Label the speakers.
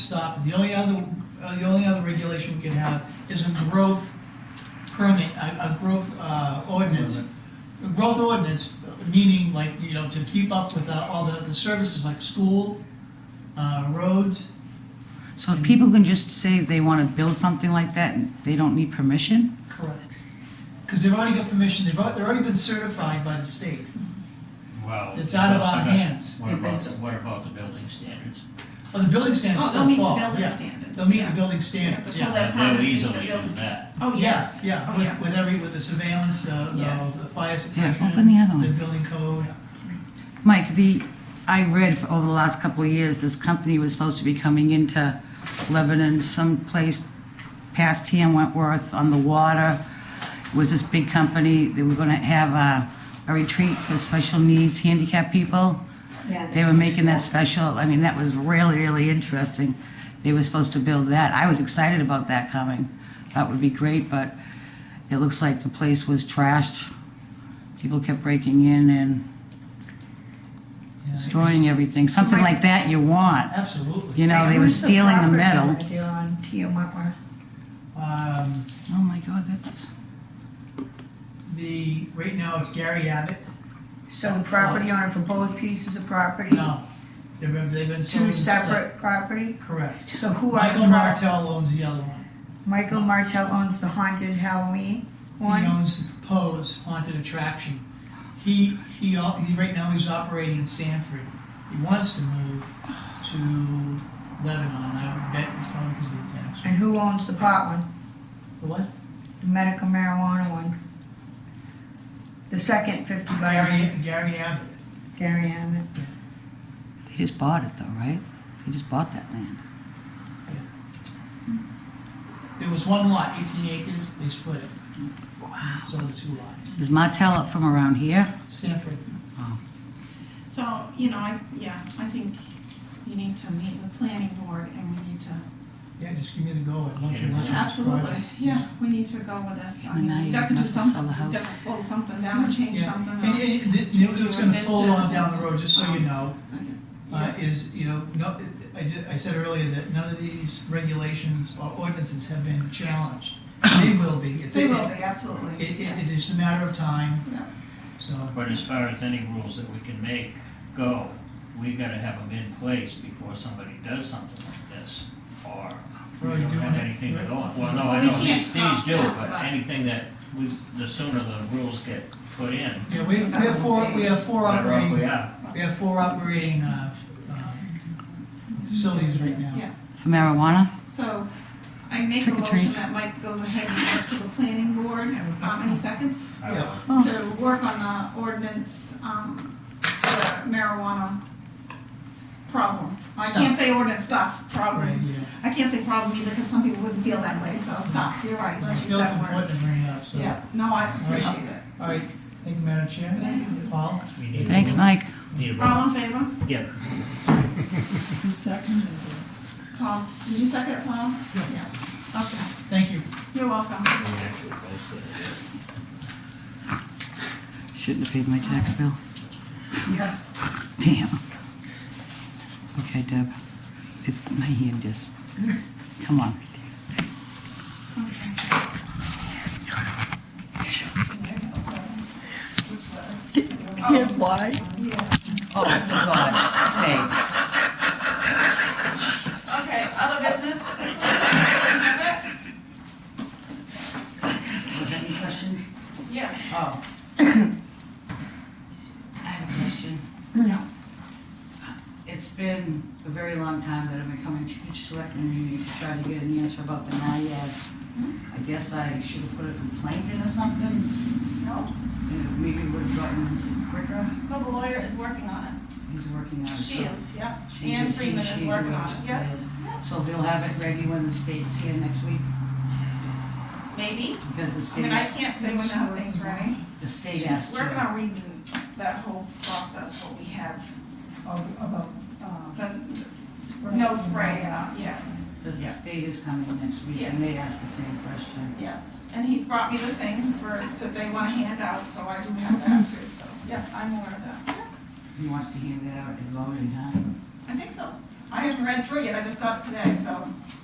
Speaker 1: stop, the only other, uh, the only other regulation we could have is a growth permit, a, a growth, uh, ordinance. A growth ordinance, meaning like, you know, to keep up with uh, all the, the services like school, uh, roads.
Speaker 2: So if people can just say they want to build something like that, and they don't need permission?
Speaker 1: Correct. Because they've already got permission, they've, al- they've already been certified by the state.
Speaker 3: Well.
Speaker 1: It's out of our hands.
Speaker 3: What about, the- what about the building standards?
Speaker 1: Well, the building standards
Speaker 4: Oh,
Speaker 1: still
Speaker 4: they'll meet the
Speaker 1: fall,
Speaker 4: building
Speaker 1: yeah.
Speaker 4: standards,
Speaker 1: They'll meet
Speaker 4: yeah.
Speaker 1: the building
Speaker 4: The
Speaker 1: standards,
Speaker 4: full
Speaker 1: yeah.
Speaker 4: That
Speaker 3: They'll
Speaker 4: happens in
Speaker 3: easily
Speaker 4: the
Speaker 3: do
Speaker 4: building.
Speaker 3: that.
Speaker 4: Oh,
Speaker 1: Yeah,
Speaker 4: yes.
Speaker 1: yeah,
Speaker 4: Oh,
Speaker 1: with,
Speaker 4: yes.
Speaker 1: with every, with the surveillance, the,
Speaker 4: Yes.
Speaker 1: the, the fire suppression.
Speaker 2: open the other one.
Speaker 1: building code.
Speaker 2: Mike, the, I read for- over the last couple of years, this company was supposed to be coming into Lebanon someplace past here in Wentworth on the water. It was this big company, they were gonna have a, a retreat for special needs handicapped people. They were making that special, I mean, that was really, really interesting. They were supposed to build that. I was excited about that coming. That would be great, but it looks like the place was trashed. People kept breaking in and
Speaker 1: Yeah.
Speaker 2: destroying everything. Something like that you want.
Speaker 1: Absolutely.
Speaker 2: You know, they were
Speaker 4: Who's the
Speaker 2: stealing the
Speaker 4: property
Speaker 2: metal.
Speaker 4: manager on T.O. Wentworth?
Speaker 1: Um,
Speaker 2: Oh my God, that's,
Speaker 1: the, right now it's Gary Abbott.
Speaker 5: So the property owner for both pieces of property?
Speaker 1: No, they've been, they've been sold.
Speaker 5: Two
Speaker 1: and split.
Speaker 5: separate property?
Speaker 1: Correct.
Speaker 5: So who are the
Speaker 1: Michael
Speaker 5: pro-
Speaker 1: Martell owns the other one.
Speaker 5: Michael Martell owns the haunted Halloween
Speaker 1: He
Speaker 5: one?
Speaker 1: owns the Pose Haunted Attraction. He, he, al- he, right now he's operating in Sanford. He wants to move to Lebanon. I would bet it's probably because of the tax.
Speaker 5: And who owns the pot one,
Speaker 1: The What?
Speaker 5: the medical marijuana one? The second fifty
Speaker 1: Gary,
Speaker 5: by
Speaker 1: Gary Abbott.
Speaker 5: Gary Ammett.
Speaker 2: they just bought it though, right? They just bought that land.
Speaker 1: There was one lot, eighteen acres, they split it,
Speaker 2: Wow.
Speaker 1: sold it two lots.
Speaker 2: Is Martell up from around here?
Speaker 1: Sanford,
Speaker 4: So, you know, I, yeah, I think you need to meet the planning board and we need to,
Speaker 1: yeah, just give me the go, I'd love to work on this
Speaker 4: absolutely,
Speaker 1: project.
Speaker 4: yeah, we need to go with this. I
Speaker 2: And now
Speaker 4: mean, you
Speaker 2: you
Speaker 4: got to do
Speaker 2: have to sell
Speaker 4: something,
Speaker 2: the
Speaker 4: you got to
Speaker 2: house.
Speaker 4: slow something down, change
Speaker 1: Yeah.
Speaker 4: something
Speaker 1: And,
Speaker 4: up.
Speaker 1: and, and th- you know, it's gonna fold on
Speaker 4: Ordinances.
Speaker 1: down the road, just so you know, uh,
Speaker 4: Yeah.
Speaker 1: is, you know, no, I, ju- I said earlier that none of these regulations or ordinances have been challenged. They will be. It's-
Speaker 4: They will
Speaker 1: it's-
Speaker 4: be, absolutely,
Speaker 1: It, it, it
Speaker 4: yes.
Speaker 1: is a matter of time,
Speaker 4: Yeah.
Speaker 1: so,
Speaker 3: But as far as any rules that we can make go, we gotta have them in place before somebody does something like this, or we
Speaker 1: Already
Speaker 3: don't
Speaker 1: doing
Speaker 3: have
Speaker 1: it.
Speaker 3: anything
Speaker 1: Right.
Speaker 3: at all. Well, no,
Speaker 4: Well,
Speaker 3: I
Speaker 4: we
Speaker 3: know
Speaker 4: can't
Speaker 3: these, these
Speaker 4: stop
Speaker 3: do,
Speaker 4: that,
Speaker 3: but
Speaker 4: but-
Speaker 3: anything that we, the sooner the rules get put in,
Speaker 1: you know, we, we have four, we have
Speaker 3: the
Speaker 1: four
Speaker 3: better off
Speaker 1: operating
Speaker 3: we are.
Speaker 1: We have four operating uh, um, facilities right now.
Speaker 4: Yeah.
Speaker 2: For marijuana?
Speaker 4: So I make a
Speaker 2: Trick or
Speaker 4: motion
Speaker 2: treat.
Speaker 4: that Mike goes ahead and goes to the planning board, how many seconds?
Speaker 3: I
Speaker 1: Yeah.
Speaker 3: would-
Speaker 2: Oh.
Speaker 4: to work on the ordinance, um, for marijuana problem. I can't say ordinance stuff,
Speaker 1: Right,
Speaker 4: problem.
Speaker 1: yeah.
Speaker 4: I can't say problem either, because some people wouldn't feel that way, so stop, you're right.
Speaker 1: I
Speaker 4: let's use
Speaker 1: feel it's
Speaker 4: that word.
Speaker 1: important to bring it up, so.
Speaker 4: Yeah, no, I appreciate it.
Speaker 1: All right, thank you, Madam Chair.
Speaker 4: Thank you.
Speaker 1: Paul?
Speaker 3: We need to
Speaker 2: Thanks,
Speaker 3: vote.
Speaker 2: Mike.
Speaker 3: Need a vote.
Speaker 4: All in favor?
Speaker 3: Yeah.
Speaker 4: Paul, did you second it, Paul? Yeah. Okay,
Speaker 1: Thank you.
Speaker 4: you're welcome.
Speaker 3: We actually both did it.
Speaker 2: Shouldn't have paid my tax bill.
Speaker 5: Yeah.
Speaker 2: Damn. Okay, Deb. It's, my hand just, come on.
Speaker 4: Okay.
Speaker 2: Here's why. Oh, for God's sakes.
Speaker 4: Okay, other business?
Speaker 2: Was there any questions?
Speaker 4: Yes.
Speaker 2: Oh. I have a question.
Speaker 5: No.
Speaker 2: It's been a very long time that I've been coming to each selectman meeting to try to get an answer about the NIAID.
Speaker 4: Hmm?
Speaker 2: I guess I should have put a complaint in or something,
Speaker 4: No,
Speaker 2: and maybe would have gotten it quicker.
Speaker 4: no, the lawyer is working on it.
Speaker 2: He's working on it.
Speaker 4: She
Speaker 2: so-
Speaker 4: is, yeah.
Speaker 2: she-
Speaker 4: Ann
Speaker 2: she-
Speaker 4: Freeman is
Speaker 2: she-
Speaker 4: working on it, yes.
Speaker 2: So he'll have it ready when the state's here next week,
Speaker 4: Maybe.
Speaker 2: because the
Speaker 4: I mean, I
Speaker 2: state,
Speaker 4: can't say when that thing's ready.
Speaker 2: the state
Speaker 4: She's
Speaker 2: asked
Speaker 4: working
Speaker 2: her.
Speaker 4: on reading that whole process, what we have,
Speaker 5: About,
Speaker 4: uh, the, no spray, uh, yes,
Speaker 2: Because the
Speaker 4: yeah.
Speaker 2: state is coming next week,
Speaker 4: Yes.
Speaker 2: and they asked the same question.
Speaker 4: yes. And he's brought me the thing for, that they wanna hand out, so I do have that too, so, yeah, I'm aware of that.
Speaker 2: He wants to hand it out and vote in, huh?
Speaker 4: I think so. I haven't read through it yet, I just got it today, so.